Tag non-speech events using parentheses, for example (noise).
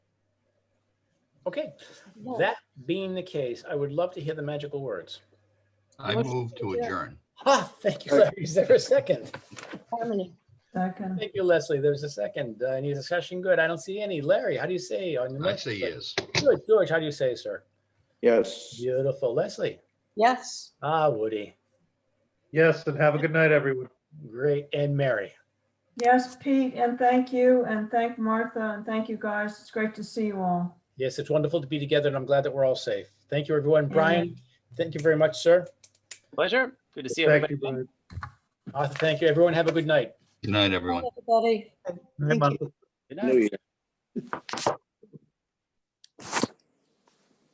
Okay, that being the case, I would love to hear the magical words. (laughs) I Motion move to to adjourn. adjourn. Ah, thank you, Larry. Is there a second? Harmony. Second, Thank you, Leslie. There's a second. Uh, Any discussion? Good. I don't see any. Larry, how do you say? on your I mic? say yes. Good. George, how do you say, sir? Yes. Beautiful. Leslie? Yes. Ah, Woody. Yes, and have a good night, everyone. Great. And Mary? yes, Pete, and thank you, and thank Martha, and thank you guys. It's great to see you all. Yes, it's wonderful to be together and I'm glad that we're all safe. Thank you, everyone. Mm-hmm. Brian, thank you very much, sir. Pleasure. Good to see Thank everybody. you, Brian. Arthur, thank you. Everyone have a good night. Good night, everyone. Everybody. Good night, Martha. Good New night. Year.